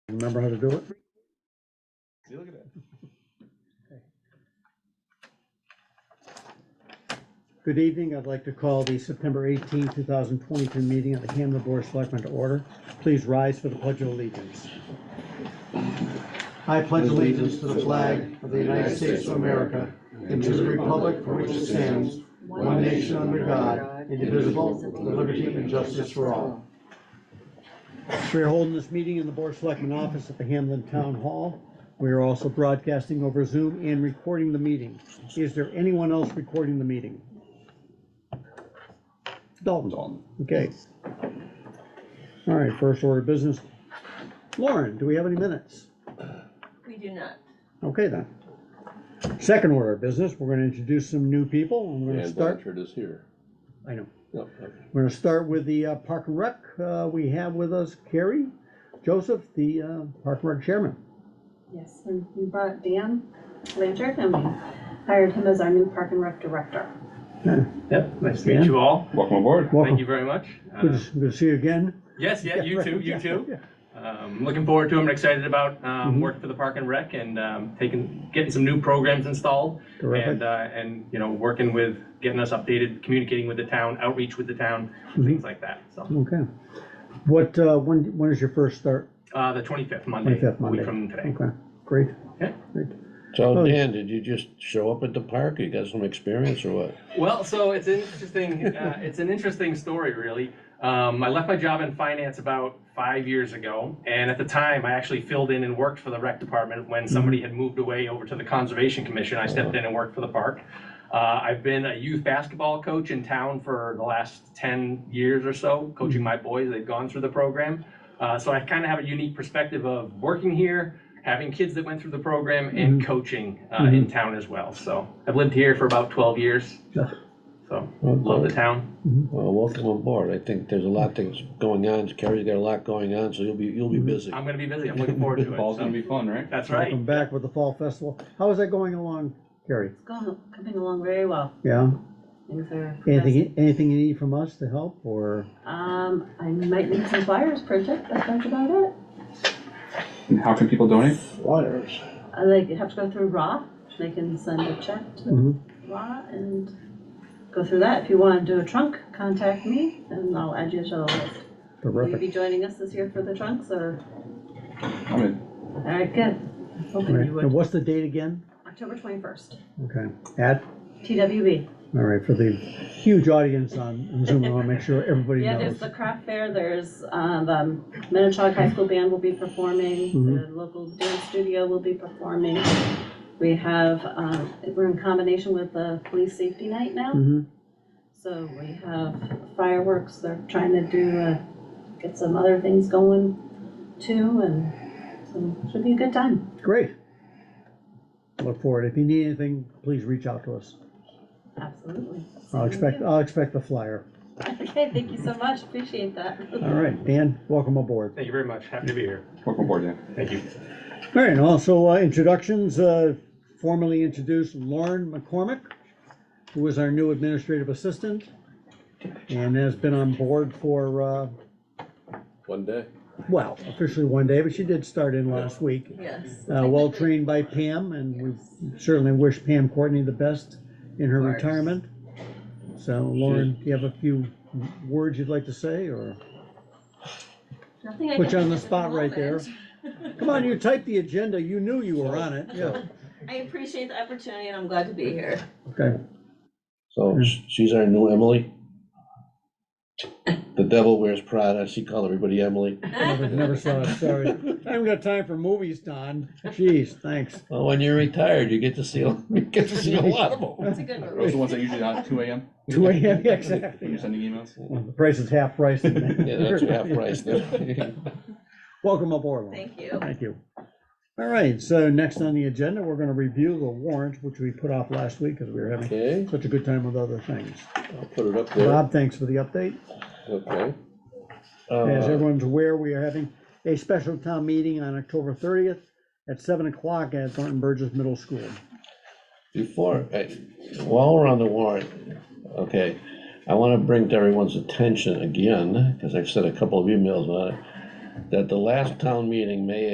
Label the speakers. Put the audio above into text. Speaker 1: remember how to do it?
Speaker 2: See, look at that.
Speaker 1: Good evening. I'd like to call the September 18, 2022 meeting of the Hamlin Board of Selectmen to order. Please rise for the Pledge of Allegiance. I pledge allegiance to the flag of the United States of America and to the republic for which it stands, one nation under God, indivisible, with liberty and justice for all. We are holding this meeting in the Board of Selectmen office at the Hamlin Town Hall. We are also broadcasting over Zoom and recording the meeting. Is there anyone else recording the meeting? Dalton, okay. All right, first order of business. Lauren, do we have any minutes?
Speaker 3: We do not.
Speaker 1: Okay then. Second order of business, we're gonna introduce some new people. I'm
Speaker 4: uh,
Speaker 1: gonna
Speaker 2: And
Speaker 1: start,
Speaker 2: Blanchard is here.
Speaker 1: I know,
Speaker 2: No, okay.
Speaker 1: we're gonna start with the uh, Park and Rec. Uh, We have with us Carrie Joseph, the uh, Park and Rec Chairman.
Speaker 4: Yes, and we brought Dan Blanchard and we hired him as our new park and rec director.
Speaker 5: Yep, nice to
Speaker 1: Yeah.
Speaker 5: meet you all.
Speaker 2: Welcome aboard.
Speaker 5: Thank
Speaker 1: Welcome.
Speaker 5: you very much.
Speaker 1: Good
Speaker 5: Uh,
Speaker 1: to good to see you again.
Speaker 5: Yes, yeah, you
Speaker 1: right,
Speaker 5: too, you
Speaker 1: yeah,
Speaker 5: too.
Speaker 1: yeah.
Speaker 5: Um, Looking forward to them and excited about um,
Speaker 1: Mhm.
Speaker 5: working for the Park and Rec and um, taking, getting some new programs installed. And,
Speaker 1: Terrific.
Speaker 5: uh, and, you know, working with, getting us updated, communicating with the town, outreach with the town,
Speaker 1: Mhm.
Speaker 5: things like that, so.
Speaker 1: Okay. What, uh, when, when is your first start?
Speaker 5: Uh, The 25th, Monday,
Speaker 1: 25th,
Speaker 5: a
Speaker 1: Monday.
Speaker 5: week from today.
Speaker 1: Okay, great.
Speaker 5: Yeah.
Speaker 1: Great.
Speaker 6: So
Speaker 1: Oh, yeah.
Speaker 6: Dan, did you just show up at the park? You got some experience or what?
Speaker 5: Well, so it's an interesting. Uh, it's an interesting story, really. Um, I left my job in finance about five years ago, and at the time, I actually filled in and worked for the rec department when somebody had moved away over to the conservation commission. I stepped in and worked for the park. Uh, I've been a youth basketball coach in town for the last ten years or so,
Speaker 2: Mm-hmm.
Speaker 5: coaching my boys. They've gone through the program, uh, so I kind of have a unique perspective of working here. Having kids that went through the program and
Speaker 2: Mm-hmm.
Speaker 5: coaching uh, in town as well. So I've lived here for about 12 years. So, love the town.
Speaker 6: Well, welcome aboard. I think there's a lot that's going on. Kerry's got a lot going on, so you'll be, you'll be busy.
Speaker 5: I'm gonna be busy, I'm looking forward to it.
Speaker 2: Ball's gonna
Speaker 5: so-
Speaker 2: be fun, right?
Speaker 5: That's right.
Speaker 1: Welcome back with the Fall Festival. How is that going along, Carrie?
Speaker 4: It's going, coming along very well.
Speaker 1: Yeah?
Speaker 4: Things are.
Speaker 1: Anything, anything you need from us to help or?
Speaker 4: Um, I might need some flyers printed, but that's about it.
Speaker 2: And how can people donate?
Speaker 6: Flyers.
Speaker 4: I like, have to go through Raw. They can send a check
Speaker 1: Mhm.
Speaker 4: to Raw and go through that. If you want to do a trunk, contact me and I'll add you to the list. Will you
Speaker 1: Terrific.
Speaker 4: be joining us this year for the trunks or?
Speaker 2: I'm in.
Speaker 4: All right, good. I was hoping
Speaker 1: Right.
Speaker 4: you
Speaker 1: And
Speaker 4: would.
Speaker 1: what's the date again?
Speaker 4: October twenty-first,
Speaker 1: Okay, at,
Speaker 4: TWB.
Speaker 1: all right, for the huge audience on on Zoom, I want to make sure everybody
Speaker 4: Yeah,
Speaker 1: knows.
Speaker 4: there's the craft fair, there's, uh, the Minichog High School Band will be performing,
Speaker 1: Mm-hmm.
Speaker 4: the local dance studio will be performing. We have, uh, we're in combination with the Police Safety Night now,
Speaker 1: Mhm.
Speaker 4: so we have fireworks, they're trying to do, uh, get some other things going too, and so should be a good time.
Speaker 1: Great. Look forward. If you need anything, please reach out to us.
Speaker 4: Absolutely.
Speaker 1: I'll expect, I'll expect the flyer.
Speaker 4: Okay, thank you so much, appreciate that.
Speaker 1: All right, Dan, welcome aboard.
Speaker 5: Thank you very much, happy to be here.
Speaker 2: Welcome aboard, Dan.
Speaker 5: Thank you.
Speaker 1: All right, and also uh, introductions, uh, formally introduce Lauren McCormick, who is our new administrative assistant and has been on board for, uh,
Speaker 6: One day.
Speaker 1: well, officially one day, but she did start in last week.
Speaker 3: Yes.
Speaker 1: Uh, well trained by Pam, and we certainly wish Pam Courtney the best in her
Speaker 3: Of course.
Speaker 1: retirement. So Lauren, do you have a few words you'd like to say, or,
Speaker 4: Nothing I
Speaker 1: Put
Speaker 4: can
Speaker 1: you on the
Speaker 4: think of at
Speaker 1: spot right there.
Speaker 4: moment.
Speaker 1: come on, you typed the agenda, you knew you were on it, yeah,
Speaker 3: I appreciate the opportunity and I'm glad to be here.
Speaker 1: okay.
Speaker 6: So sh- she's our new Emily. The devil wears Prada. She called everybody Emily.
Speaker 1: Never, never saw it, sorry. I haven't got time for movies, Don. Jeez, thanks.
Speaker 6: Well, when you're retired, you get to see, a- you get to see a lot of them.
Speaker 3: It's a good
Speaker 2: Those are
Speaker 3: one.
Speaker 2: the ones that usually on at two AM
Speaker 1: Two AM, yeah,
Speaker 2: when
Speaker 1: exactly.
Speaker 2: you're sending emails.
Speaker 1: The price is half price.
Speaker 6: Yeah, that's half price. then.
Speaker 1: Welcome aboard, Lauren.
Speaker 3: Thank you.
Speaker 1: Thank you. All right, so next on the agenda, we're gonna review the warrant, which we put off last week because we were having
Speaker 6: Okay,
Speaker 1: such a good time with other things.
Speaker 6: I'll put it up there.
Speaker 1: Rob, thanks for the update.
Speaker 6: Okay.
Speaker 1: As
Speaker 6: Uh,
Speaker 1: everyone's aware, we are having a special town meeting on October thirtieth at seven o'clock at Thornton Burgess Middle School.
Speaker 6: Before, uh, while we're on the warrant, okay, I want to bring to everyone's attention again, because I've sent a couple of emails on it, that the last town meeting, May